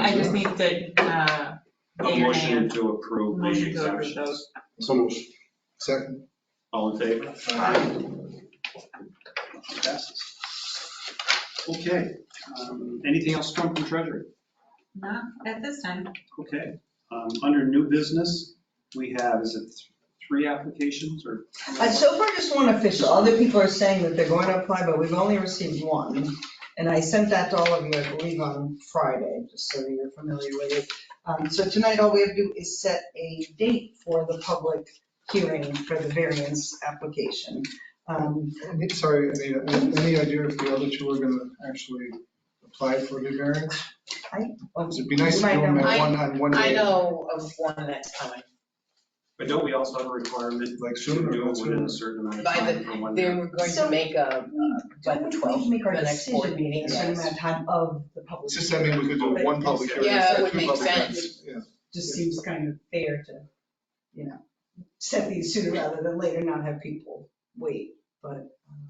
I just need the, uh, A yea or nay motion on- to approve the motion to approve exemptions. those. So moved. Second. All in favor? Passes. Okay, um, anything else come from treasury? Not at this time. Okay, um, under new business, we have, is it three applications or? Uh, So far, just one official. Other people are saying that they're going to apply, but we've only received one. And I sent that to all of you, I believe, on Friday, just so you're familiar with it. Um, So tonight, all we have to do is set a date for the public hearing for the variance application. Um, Any- Sorry, Anita, a- any idea if the other two are gonna actually apply for the variance? It'd be nice to do them at I- one, on one I day, know of one that's coming. But don't we also have a requirement like to sooner. do it that's within a what- certain amount of By time from when They they're were going So- to make a, by the 12th, make our the next board decision meeting, in a certain yes. amount of time of the public. It's just, I mean, we could do one public hearing. Yeah, it instead of would two make public sense. hearings, yeah. Just seems kind of fair to, you know, set these sooner rather than later, not have people wait, but.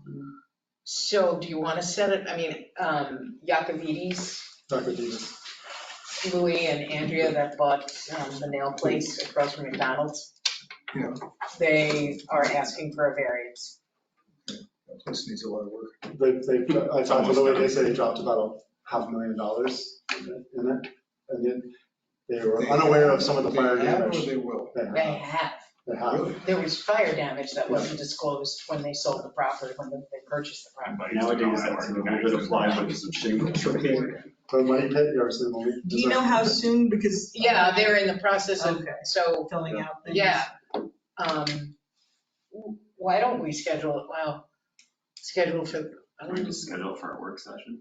um, So do you want to set it, I mean, um, Yacovides, Dr. Davis. Louis and Andrea that bought um, the nail place across from McDonald's? Yeah. They are asking for a variance. That place needs a lot of work. They, they, I talked to Louis, they said they dropped about a half million dollars in it. And then they were unaware of some of the fire They have or damage. They will. They They have, have, they have. there was fire damage that wasn't disclosed when they sold the property, when they purchased the property. Nowadays, that's a little bit of plywood, some shingle. But money pit, you ever seen the movie? Do you know how soon, because? Yeah, they're in the process of, Okay, so filling out things. Yeah. Um, w- why don't we schedule it, wow, schedule for, I We don't know, just schedule it for our work session.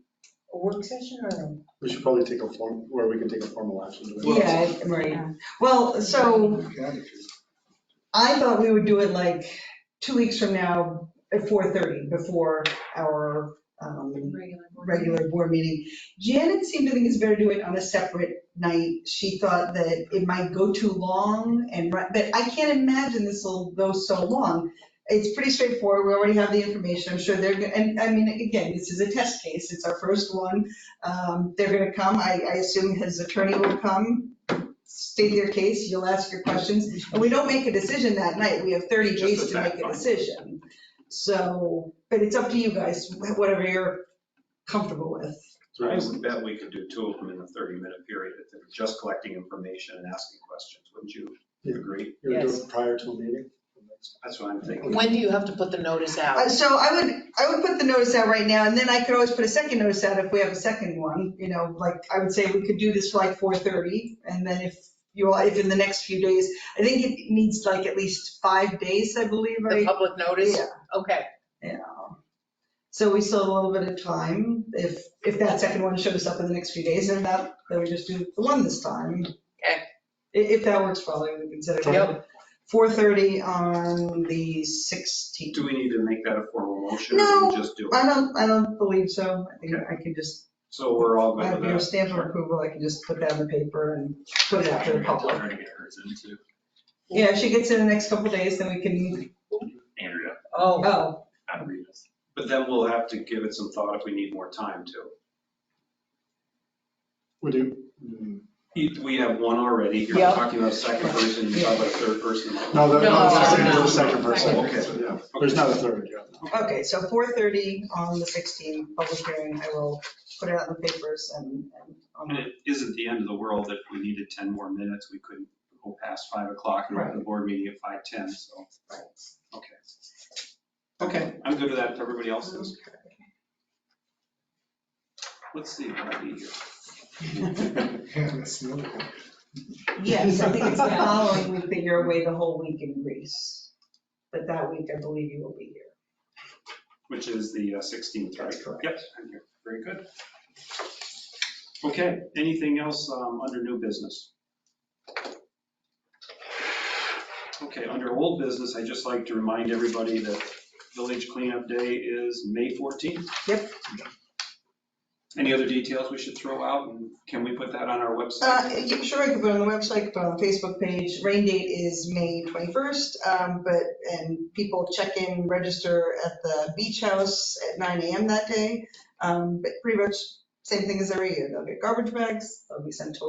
a work session or? We should probably take a form, where we can take a formal action. to it. Yeah, right. Well, so Yeah, if you- I thought we would do it like two weeks from now at 4:30 before our um, regular board meeting. Janet seemed to think it's better to do it on a separate night. She thought that it might go too long and, ri- but I can't imagine this will go so long. It's pretty straightforward. We already have the information. I'm sure they're, gonna and I mean, again, this is a test case. It's our first one. Um, They're going to come. I, I assume his attorney will come, state their case. You'll ask your questions. And we don't make a decision that night. We have 30 Just days the to make fact a find. decision. So, but it's up to you guys, wh- whatever you're comfortable with. I would bet we could do two of them in a 30-minute period if they're just collecting information and asking questions, wouldn't you Yeah. agree? You would do Yes. it prior to a meeting? That's what I'm thinking. When do you have to put the notice Uh, out? So I would, I would put the notice out right now, and then I could always put a second notice out if we have a second one, you know, like, I would say we could do this for like 4:30, and then if you all, if in the next few days, I think it needs like at least five days, I believe, The right? public notice? Yeah. Okay, Yeah. So we still have a little bit of time, if, if that second one shows up in the next few days, and that, then we just do the one this time. Okay. If, if that works, probably we consider it. Yep. 4:30 on the 16th. Do we need to make that a formal motion? or No, we Just do it. I don't, I don't believe so. I think I can just, So we're all I good have with your that? stamp of approval, I can just put that in the paper and put it out to the public. Trying to get hers in too. Yeah, if she gets it in the next couple days, then we can, Andrea, oh, oh, not read this. But then we'll have to give it some thought if we need more time too. We do. Hmm. Mm. If We have one already, you're Yeah. talking about a second person, you're talking about a third person. No, that- no, it's the same, No, there's a second Oh, person. Okay. Yeah. There's not a third, yeah. okay, so 4:30 on the 16th, public hearing, I will put it out in the papers and, and um, And on it isn't the end of the world if we needed 10 more minutes, we couldn't go past 5 o'clock and have the board meeting at 5:10, so. Okay. Okay, I'm good with that, everybody else is? Let's see, what I need here. Yeah, that's another one. Yes, I think it's the following week that you're away the whole week in Greece. But that week, I believe you will be here. Which is the uh, 16th, right? That's correct. Yep, I'm here. very good. Okay, anything else um, under new business? Okay, under old business, I'd just like to remind everybody that Village Cleanup Day is May 14th. Yep. Any other details we should throw out, and can we put that on our Uh, website? yeah, Sure, I could put it on the website, put it on the Facebook page. Rain date is May 21st, um, but, and people check in, register at the beach house at 9 AM that day. Um, But pretty much same thing as every year. They'll get garbage bags, they'll be sent to